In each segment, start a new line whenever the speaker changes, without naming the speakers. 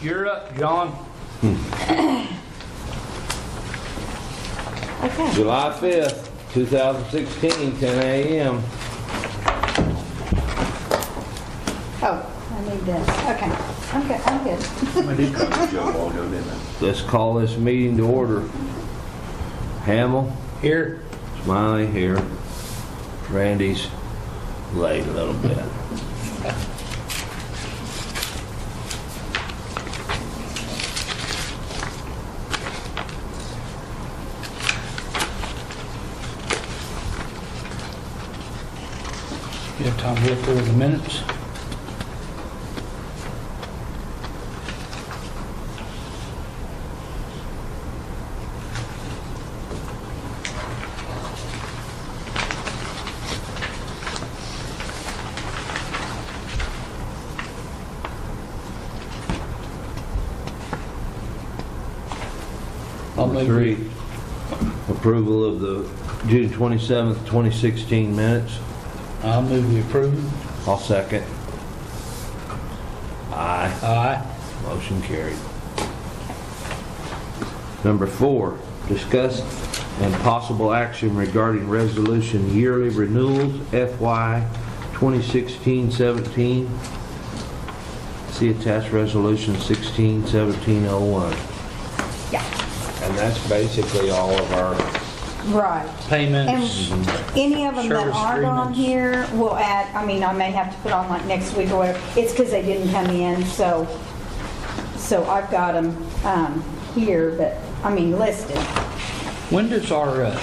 You're up, John.
July 5th, 2016, 10 a.m.
Oh, I need this. Okay, I'm good, I'm good.
Let's call this meeting to order. Hamel,
Here.
Smiley here, Randy's late a little bit.
You have time to look over the minutes? I'll
Number
move
three,
we-
approval of the June 27th, 2016 minutes.
I'll move we approve.
I'll second. Aye.
Aye.
Motion carried. Number four, discuss and possible action regarding resolution yearly renewals FY 2016-17. See attached resolution 16-1701.
Yeah,
And that's basically all of our,
right. And
Payments.
any of them that
Service
aren't on
agreements.
here, we'll add, I mean, I may have to put on like next week or whatever. It's because they didn't come in, so, so I've got them, um, here, but, I mean, listed.
When does our, uh,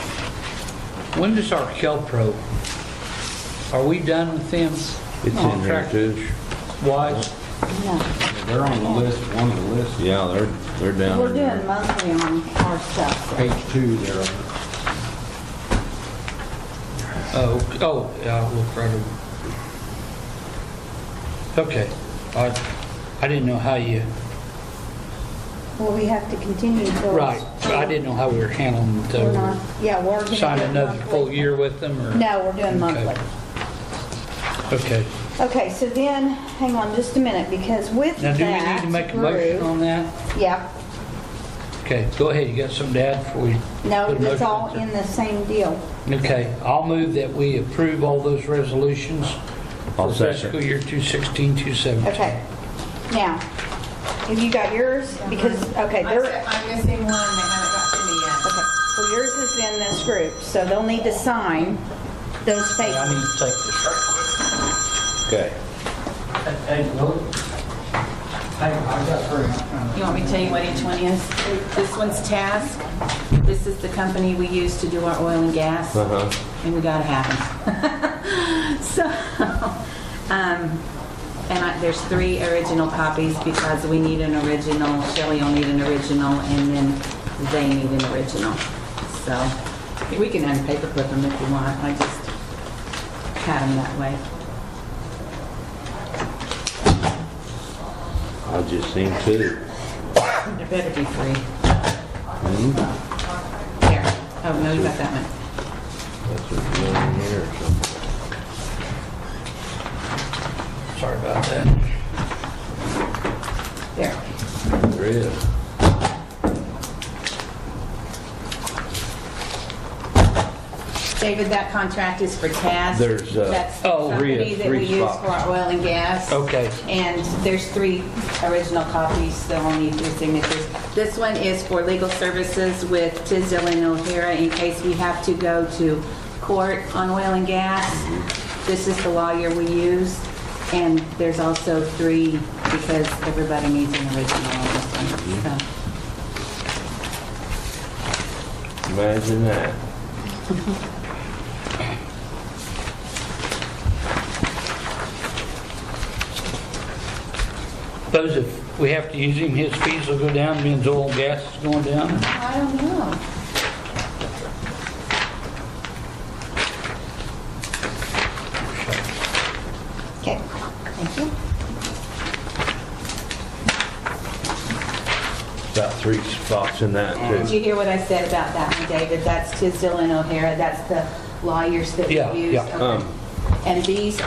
when does our Kelpro, are we done with them?
it's in there too.
Wise?
No.
They're on the list, one of the lists,
Yeah, they're, they're down.
We're
in there.
doing mostly on our stuff. so.
page two there.
Oh, ok- oh, yeah, I'll look right over. Okay, I, I didn't know how you,
Well, we have to continue till.
right, I didn't know how we were handling it,
We're
uh,
not, yeah, we're. gonna
sign
do it
another full
monthly.
year with them, or?
No, we're doing
Okay.
monthly.
Okay,
Okay, so then, hang on just a minute, because with
now
that
do we need to make a motion
group-
on that?
Yeah,
Okay, go ahead, you got something to add before we?
no,
put a
it's
motion
all
out there?
in the same deal.
Okay, I'll move that we approve all those resolutions
I'll
for
second.
fiscal year 216, 217.
Okay, now, have you got yours? Because, okay,
I'm
they're, okay,
s- I'm missing one, they haven't got to me yet.
well, yours is in this group, so they'll need to sign those
I
papers.
need to take this right
Okay.
quick. Hey, Will. Hey, I got her.
You want me to tell you what each one is? This one's Task. This is the company we use to do our oil and gas.
Uh-huh.
And we gotta have them. So, um, and I, there's three original copies because we need an original, Shelley will need an original, and then they need an original. So, we can unpaperclip them if you want. I just had them that way.
I just seen two.
There better be three. There. Oh, no, you got that one.
That's what's in here or something.
Sorry about that.
There.
There is.
David, that contract is for TAS.
There's, uh,
That's the
Oh,
Rhea,
company that
three
we use
spots.
for our oil and gas.
Okay.
And there's three original copies, so I'll need your signatures. This one is for legal services with Tisdale and O'Hara in case we have to go to court on oil and gas. This is the lawyer we use, and there's also three because everybody needs an original on this one. So,
Imagine that.
Those, if we have to use him, his fees will go down, means oil and gas is going down.
I don't know.
Okay, thank you.
About three spots in that
Did
too.
you hear what I said about that one, David? That's Tisdale and O'Hara, that's the lawyers that we
Yeah,
use.
Um,
yeah.
Okay. And these